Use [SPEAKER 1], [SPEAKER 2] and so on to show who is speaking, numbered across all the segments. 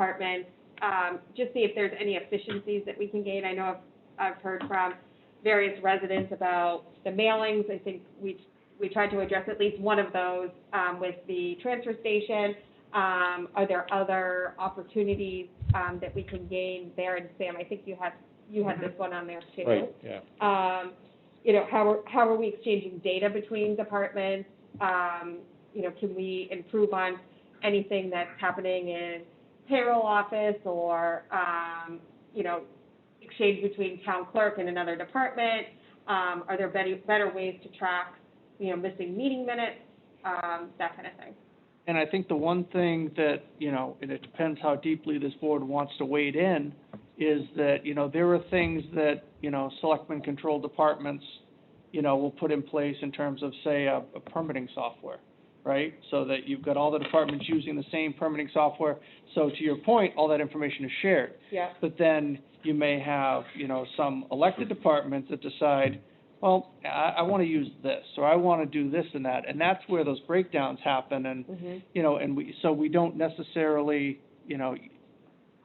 [SPEAKER 1] department, um, just see if there's any efficiencies that we can gain. I know I've, I've heard from various residents about the mailings. I think we, we tried to address at least one of those, um, with the transfer station. Um, are there other opportunities, um, that we can gain there? And Sam, I think you had, you had this one on there too
[SPEAKER 2] Right, yeah.
[SPEAKER 1] um, you know, how are, how are we exchanging data between departments? Um, you know, can we improve on anything that's happening in payroll office or, um, you know, exchange between town clerk and another department? Um, are there better, better ways to track, you know, missing meeting minutes, um, that kind of thing?
[SPEAKER 3] And I think the one thing that, you know, and it depends how deeply this board wants to wade in, is that, you know, there are things that, you know, selectmen control departments, you know, will put in place in terms of, say, a a permitting software, right? So that you've got all the departments using the same permitting software. So to your point, all that information is shared.
[SPEAKER 1] Yeah.
[SPEAKER 3] But then you may have, you know, some elected departments that decide, well, I, I want to use this, or I want to do this and that. And that's where those breakdowns happen and,
[SPEAKER 1] Mm-hmm.
[SPEAKER 3] you know, and we, so we don't necessarily, you know,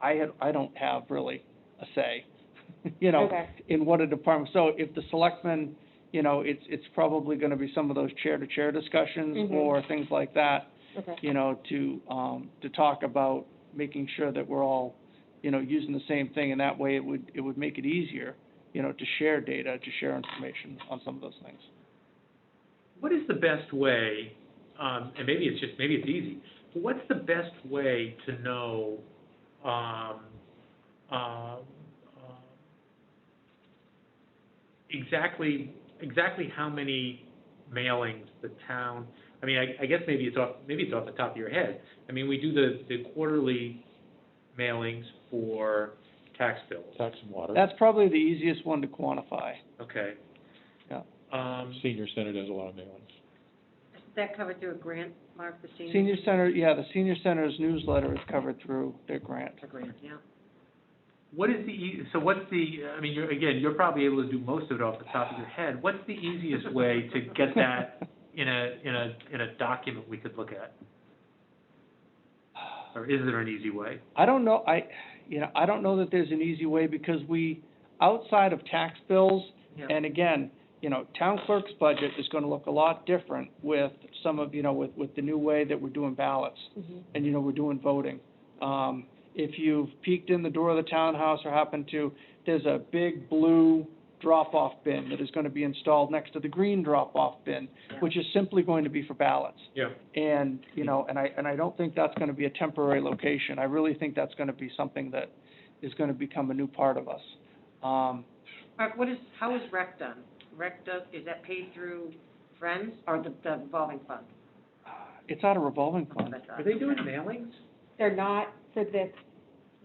[SPEAKER 3] I had, I don't have really a say, you know,
[SPEAKER 1] Okay,
[SPEAKER 3] in what a department, so if the selectmen, you know, it's, it's probably going to be some of those chair-to-chair discussions
[SPEAKER 1] Mhm.
[SPEAKER 3] or things like that,
[SPEAKER 1] okay,
[SPEAKER 3] you know, to, um, to talk about making sure that we're all, you know, using the same thing, and that way it would, it would make it easier, you know, to share data, to share information on some of those things.
[SPEAKER 4] What is the best way, um, and maybe it's just, maybe it's easy, but what's the best way to know, um, um, uh, exactly, exactly how many mailings the town, I mean, I, I guess maybe it's off, maybe it's off the top of your head. I mean, we do the, the quarterly mailings for tax bills,
[SPEAKER 2] Tax and water.
[SPEAKER 3] That's probably the easiest one to quantify.
[SPEAKER 4] okay?
[SPEAKER 3] Yeah.
[SPEAKER 4] Um,
[SPEAKER 2] Senior Center does a lot of mailings.
[SPEAKER 5] That covered through a grant, Mark, for seniors?
[SPEAKER 3] Senior Center, yeah, the Senior Center's newsletter is covered through their grant.
[SPEAKER 5] A grant, yeah.
[SPEAKER 4] What is the, ea- so what's the, I mean, you're, again, you're probably able to do most of it off the top of your head. What's the easiest way to get that in a, in a, in a document we could look at? Or is there an easy way?
[SPEAKER 3] I don't know, I, you know, I don't know that there's an easy way because we, outside of tax bills,
[SPEAKER 4] Yeah.
[SPEAKER 3] and again, you know, town clerk's budget is gonna look a lot different with some of, you know, with, with the new way that we're doing ballots.
[SPEAKER 1] Mhm.
[SPEAKER 3] and you know, we're doing voting. Um, if you've peeked in the door of the townhouse or happened to, there's a big blue drop-off bin that is gonna be installed next to the green drop-off bin, which is simply going to be for ballots.
[SPEAKER 4] Yeah.
[SPEAKER 3] And, you know, and I, and I don't think that's gonna be a temporary location. I really think that's gonna be something that is gonna become a new part of us. Um,
[SPEAKER 5] Mark, Uh, what is, how is rec done? Rec does, is that paid through Friends or the, the revolving fund?
[SPEAKER 3] it's out of revolving
[SPEAKER 5] That's
[SPEAKER 3] fund.
[SPEAKER 5] what I thought.
[SPEAKER 4] mailings?
[SPEAKER 1] they're not for this,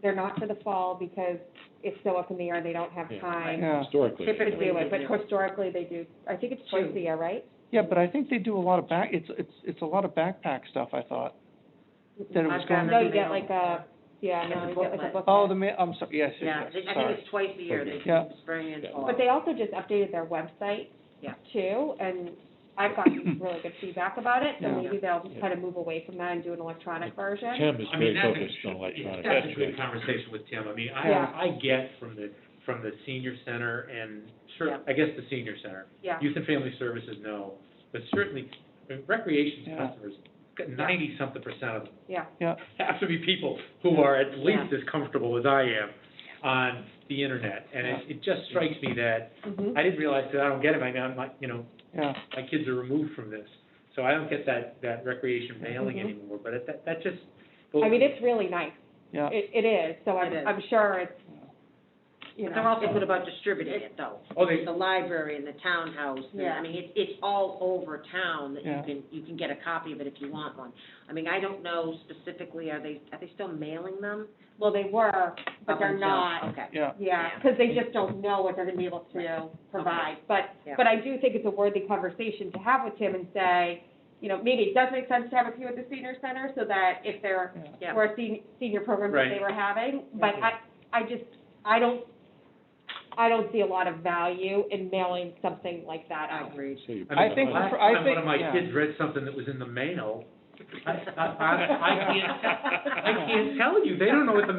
[SPEAKER 1] they're not for the fall because it's so up in the air, they don't have
[SPEAKER 2] Yeah.
[SPEAKER 1] time
[SPEAKER 3] Yeah,
[SPEAKER 2] Historically,
[SPEAKER 1] to
[SPEAKER 5] Typically,
[SPEAKER 1] do
[SPEAKER 5] they
[SPEAKER 1] it, but
[SPEAKER 5] do.
[SPEAKER 1] historically they do, I think it's twice a
[SPEAKER 5] Two.
[SPEAKER 1] year, right?
[SPEAKER 3] yeah, but I think they do a lot of back, it's, it's, it's a lot of backpack stuff, I thought. That it was
[SPEAKER 5] I've
[SPEAKER 3] going
[SPEAKER 5] gotten
[SPEAKER 1] No, you get
[SPEAKER 5] email.
[SPEAKER 1] like a, yeah, no, you get like a booklet.
[SPEAKER 3] Oh, the ma, I'm sorry, yes,
[SPEAKER 5] Yeah,
[SPEAKER 3] yes,
[SPEAKER 5] they-
[SPEAKER 3] yes,
[SPEAKER 5] I
[SPEAKER 3] sorry.
[SPEAKER 5] think it's twice a year, they
[SPEAKER 3] Yeah.
[SPEAKER 5] spring and
[SPEAKER 2] Yeah.
[SPEAKER 5] fall.
[SPEAKER 1] But they also just updated their website
[SPEAKER 5] Yeah.
[SPEAKER 1] too, and I've gotten really good feedback about it, so
[SPEAKER 3] Yeah.
[SPEAKER 1] maybe they'll
[SPEAKER 2] Yeah.
[SPEAKER 1] try to move away from that and do an electronic version.
[SPEAKER 2] Tim is
[SPEAKER 4] I mean,
[SPEAKER 2] very
[SPEAKER 4] that's a-
[SPEAKER 2] focused on electronic.
[SPEAKER 4] That's a good conversation with Tim. I mean,
[SPEAKER 1] Yeah.
[SPEAKER 4] I, I get from the, from the senior center and cer-
[SPEAKER 5] Yeah.
[SPEAKER 4] I guess the senior center.
[SPEAKER 1] Yeah.
[SPEAKER 4] Youth and Family Services, no, but certainly I mean, recreation
[SPEAKER 3] Yeah.
[SPEAKER 4] customers, ninety-something percent of them
[SPEAKER 1] Yeah,
[SPEAKER 4] have to be people who are at least as comfortable as I am on the internet. And it, it just strikes me that,
[SPEAKER 1] mhm,
[SPEAKER 5] Mm-hmm.
[SPEAKER 4] I didn't realize that I don't get it, I mean, I'm like, you know,
[SPEAKER 3] Yeah,
[SPEAKER 4] my kids are removed from this. So I don't get that, that recreation mailing
[SPEAKER 1] Mhm.
[SPEAKER 3] Mm-hmm.
[SPEAKER 4] anymore, but it- that, that just.
[SPEAKER 1] I mean, it's really nice,
[SPEAKER 3] yeah.
[SPEAKER 1] it, it is, so I'm,
[SPEAKER 5] It is.
[SPEAKER 1] I'm sure it's, you
[SPEAKER 5] But they're
[SPEAKER 1] know,
[SPEAKER 5] also good about distributing it though.
[SPEAKER 4] Oh, they,
[SPEAKER 5] The library and the townhouse, and,
[SPEAKER 1] Yeah.
[SPEAKER 5] I mean, it's, it's all over town that you
[SPEAKER 3] Yeah.
[SPEAKER 5] can, you can get a copy of it if you want one. I mean, I don't know specifically, are they, are they still mailing them?
[SPEAKER 1] well, they were, but
[SPEAKER 5] Up
[SPEAKER 1] they're
[SPEAKER 5] until-
[SPEAKER 1] not,
[SPEAKER 5] Okay.
[SPEAKER 3] Yeah,
[SPEAKER 1] Yeah,
[SPEAKER 5] Yeah.
[SPEAKER 1] because they just don't know what they're gonna be able to provide. But,
[SPEAKER 5] Yeah.
[SPEAKER 1] but I do think it's a worthy conversation to have with him and say, you know, maybe it does make sense to have a few at the senior center so that if there
[SPEAKER 5] Yeah. Mm-hmm.
[SPEAKER 1] were senior, senior programs that they
[SPEAKER 4] Right.
[SPEAKER 1] were having. But I, I just, I don't, I don't see a lot of value in mailing something like that
[SPEAKER 5] I
[SPEAKER 1] out.
[SPEAKER 5] agree.
[SPEAKER 2] So you-
[SPEAKER 3] I think-
[SPEAKER 4] Last
[SPEAKER 3] I
[SPEAKER 4] time one
[SPEAKER 3] think-
[SPEAKER 4] of my
[SPEAKER 3] yeah.
[SPEAKER 4] kids read something that was in the mail, I, I, I I can't, I can't tell you, they don't know what the